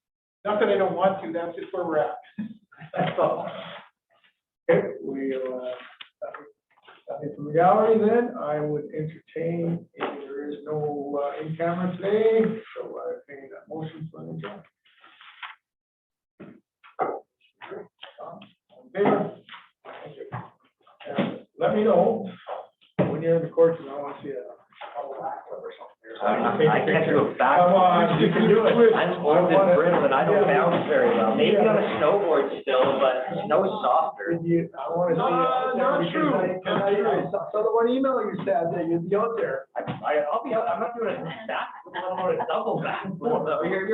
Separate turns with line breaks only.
Not that I don't want to, that's just where we're at. That's all.
Okay, we, uh, nothing from the gallery then, I would entertain, if there is no uh, in camera today, so I think that motion for the job. Let me know when you're in the court, and I want to see a, a laugh or something. or
I can't do a back.
Come on, you can do it.
I'm old and brittle and I don't bounce very well. Maybe on a snowboard still, but snow's softer.
Did you, I wanna see. uh,
No, not true. Not true.
Someone email you said that you'd be out there.
I, I- I'll be, out- I'm not doing a back, flip, I'm doing a double back. flip. You're,